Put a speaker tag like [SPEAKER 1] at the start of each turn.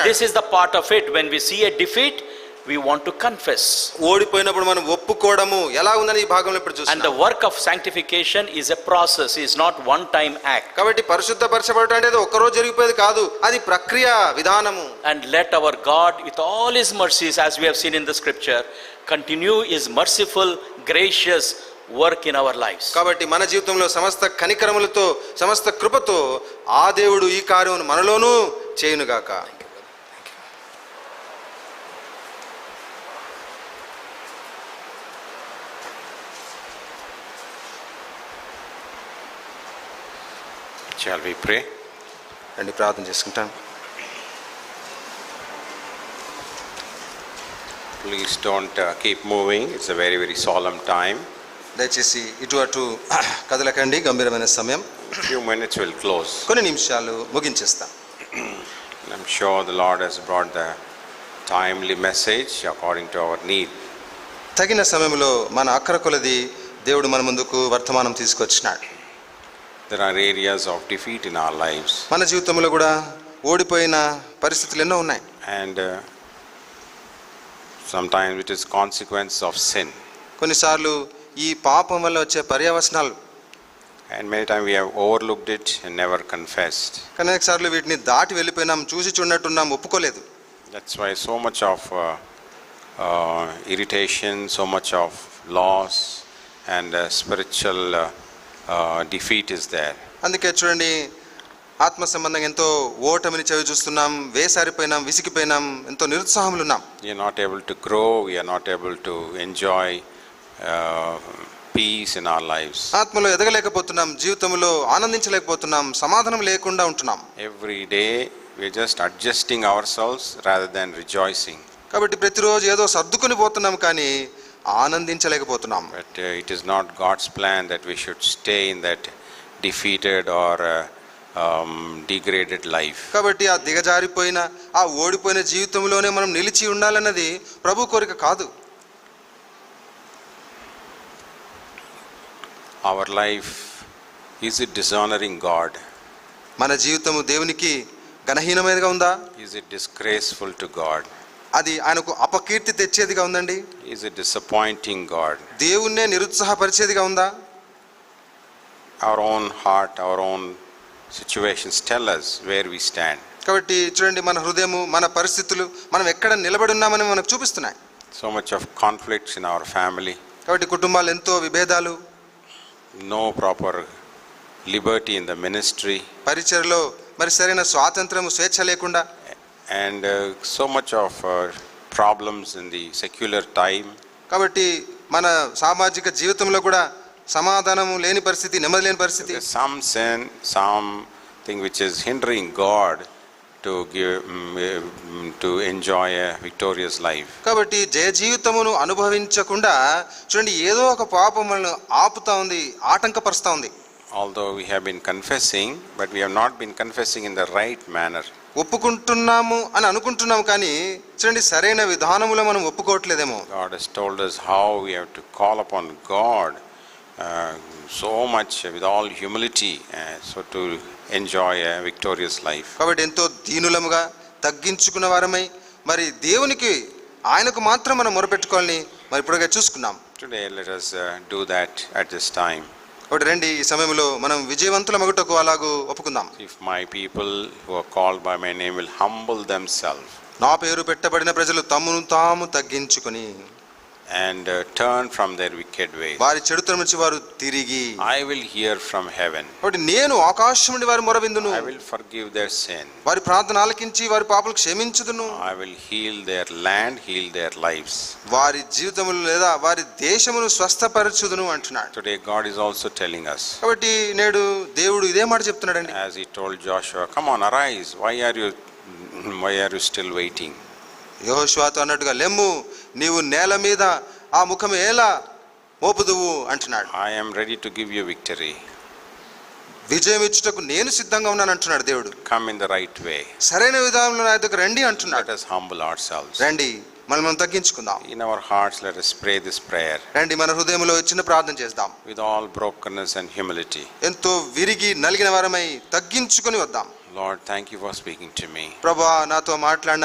[SPEAKER 1] This is the part of it. When we see a defeat, we want to confess.
[SPEAKER 2] ఓడిపోయినప్పుడు మనం ఒప్పుకోవడము ఎలా ఉందని ఈ భాగంలో ఇప్పుడు
[SPEAKER 1] And the
[SPEAKER 2] చూస్తున్నాం
[SPEAKER 1] work of sanctification is a process, is not one time act.
[SPEAKER 2] కాబట్టి పరిశుద్ధపరచబడటం అనేది ఒక్కరోజు జరిగిపోయేది కాదు అది ప్రక్రియ విధానము
[SPEAKER 1] And let our God, with all his mercies, as we have seen in the scripture, continue his merciful, gracious work in our lives.
[SPEAKER 2] కాబట్టి మన జీవితంలో సమస్త కనికరములతో సమస్త కృపతో ఆ దేవుడు ఈ కార్యమును మనలోనూ చేయునుగాక
[SPEAKER 3] Shall we pray?
[SPEAKER 2] రండి ప్రార్థన చేసుకుంటాం
[SPEAKER 3] Please don't uh, keep moving. It's a very, very solemn time.
[SPEAKER 2] దయచేసి ఇటు అటు కదలకండి గంభీరమైన సమయం
[SPEAKER 3] Few minutes will close.
[SPEAKER 2] కొన్ని నిమిషాలు ముగించేస్తాం
[SPEAKER 3] And I'm sure the Lord has brought the timely message according to our need.
[SPEAKER 2] తగిన సమయంలో మన అక్కర కొలది దేవుడు మన ముందుకు వర్తమానం తీసుకొచ్చినాడు
[SPEAKER 3] There are areas of defeat in our lives,
[SPEAKER 2] మన జీవితంలో కూడా ఓడిపోయిన పరిస్థితులు ఎన్నో ఉన్నాయి
[SPEAKER 3] and uh, sometimes it is consequence of sin.
[SPEAKER 2] కొన్నిసార్లు ఈ పాపం వల్ల వచ్చే పర్యవసనాలు
[SPEAKER 3] And many times we have overlooked it and never confessed.
[SPEAKER 2] అనేక సార్లు వీటిని దాటి వెళ్ళిపోయినాం చూసి చూడనట్టున్నాం ఒప్పుకోలేదు
[SPEAKER 3] That's why so much of uh, uh, irritation, so much of loss, and uh, spiritual uh, uh, defeat is there.
[SPEAKER 2] అందుకే చూడండి ఆత్మ సంబంధం ఎంతో ఓటమిని చవి చూస్తున్నాం వేసారిపోయినాం విసిగిపోయినాం ఎంతో నిరుత్సాహంలో ఉన్నాం
[SPEAKER 3] We are not able to grow, we are not able to enjoy uh, peace in our lives.
[SPEAKER 2] ఆత్మలో ఎదగలేకపోతున్నాం జీవితంలో ఆనందించలేకపోతున్నాం సమాధానం లేకుండా ఉంటున్నాం
[SPEAKER 3] Every day we are just adjusting ourselves rather than rejoicing.
[SPEAKER 2] కాబట్టి ప్రతిరోజు ఏదో సర్దుకుని పోతున్నాం కానీ ఆనందించలేకపోతున్నాం
[SPEAKER 3] But uh, it is not God's plan that we should stay in that defeated or uh, um, degraded life.
[SPEAKER 2] కాబట్టి ఆ దిగజారిపోయిన ఆ ఓడిపోయిన జీవితంలోనే మనం నిలిచి ఉండాలన్నది ప్రభు కోరిక కాదు
[SPEAKER 3] our life is it dishonoring god
[SPEAKER 2] మన జీవితము దేవునికి ఘనహీనమైనదిగా ఉందా
[SPEAKER 3] is it disgraceful to god
[SPEAKER 2] అది ఆయనకు అపకీర్తి తెచ్చేదిగా ఉందండి
[SPEAKER 3] is it disappointing god
[SPEAKER 2] దేవుణ్ణే నిరుత్సాహపరిచేదిగా ఉందా
[SPEAKER 3] our own heart our own situations tell us where we stand
[SPEAKER 2] కాబట్టి చూడండి మన హృదయము మన పరిస్థితులు మనం ఎక్కడ నిలబడి ఉన్నామని మనకు చూపిస్తున్నాయి
[SPEAKER 3] so much of conflicts in our family
[SPEAKER 2] కాబట్టి కుటుంబాలు ఎంతో విభేదాలు
[SPEAKER 3] no proper liberty in the ministry
[SPEAKER 2] పరిచయలో మరి సరైన స్వాతంత్రము స్వేచ్ఛ లేకుండా
[SPEAKER 3] and uh, so much of uh, problems in the secular time
[SPEAKER 2] కాబట్టి మన సామాజిక జీవితంలో కూడా సమాధానము లేని పరిస్థితి నెమ్మది లేని పరిస్థితి
[SPEAKER 3] There's some sin, something which is hindering God to give, mm, mm, to enjoy a victorious life.
[SPEAKER 2] కాబట్టి జయ జీవితమును అనుభవించకుండా చూడండి ఏదో ఒక పాపం మనల్ని ఆపుతా ఉంది ఆటంకపరుస్తూ ఉంది
[SPEAKER 3] Although we have been confessing, but we have not been confessing in the right manner.
[SPEAKER 2] ఒప్పుకుంటున్నాము అని అనుకుంటున్నాము కానీ చూడండి సరైన విధానములో మనం ఒప్పుకోవట్లేదేమో
[SPEAKER 3] God has told us how we have to call upon God uh, so much with all humility, uh, so to enjoy a victorious life.
[SPEAKER 2] కాబట్టి ఎంతో దీనులముగా తగ్గించుకున్న వారమై మరి దేవునికి ఆయనకు మాత్రం మనం మొరపెట్టుకోవాలని మరి ఇప్పుడుగా చూసుకున్నాం
[SPEAKER 3] Today, let us uh, do that at this time.
[SPEAKER 2] కాబట్టి రండి ఈ సమయంలో మనం విజయవంతుల మగుటకు అలాగూ ఒప్పుకుందాం
[SPEAKER 3] If my people who are called by my name will humble themselves.
[SPEAKER 2] నా పేరు పెట్టబడిన ప్రజలు తమను తాము తగ్గించుకుని
[SPEAKER 3] and uh, turn from their wicked ways.
[SPEAKER 2] వారి చెడుతనం నుంచి వారు తిరిగి
[SPEAKER 3] I will hear from heaven.
[SPEAKER 2] కాబట్టి నేను ఆకాశం నుండి వారి మొరవిందును
[SPEAKER 3] I will forgive their sin.
[SPEAKER 2] వారి ప్రార్థన ఆలకించి వారి పాపలు క్షమించుదును
[SPEAKER 3] I will heal their land, heal their lives.
[SPEAKER 2] వారి జీవితములు లేదా వారి దేశమును స్వస్థపరచుదును అంటున్నాడు
[SPEAKER 3] Today, God is also telling us,
[SPEAKER 2] కాబట్టి నేడు దేవుడు ఇదే మాట చెప్తున్నాడండి
[SPEAKER 3] as He told Joshua, Come on, arise. Why are you, why are you still waiting?
[SPEAKER 2] యెహోషువతో అన్నట్టుగా లెమ్ము నీవు నేల మీద ఆ ముఖం ఎలా మోపుదువు అంటున్నాడు
[SPEAKER 3] I am ready to give you victory.
[SPEAKER 2] విజయం ఇచ్చుటకు నేను సిద్ధంగా ఉన్నాను అంటున్నాడు దేవుడు
[SPEAKER 3] Come in the right way.
[SPEAKER 2] సరైన విధానంలో నా దగ్గర రండి
[SPEAKER 3] Let
[SPEAKER 2] అంటున్నాడు
[SPEAKER 3] us humble ourselves.
[SPEAKER 2] రండి మనం మనం తగ్గించుకుందాం
[SPEAKER 3] In our hearts, let us pray this prayer
[SPEAKER 2] రండి మన హృదయంలో చిన్న ప్రార్థన చేద్దాం
[SPEAKER 3] with all brokenness and humility.
[SPEAKER 2] ఎంతో విరిగి నలిగిన వారమై తగ్గించుకొని వద్దాం
[SPEAKER 3] Lord, thank you for speaking to me.
[SPEAKER 2] ప్రభా నాతో మాట్లాడిన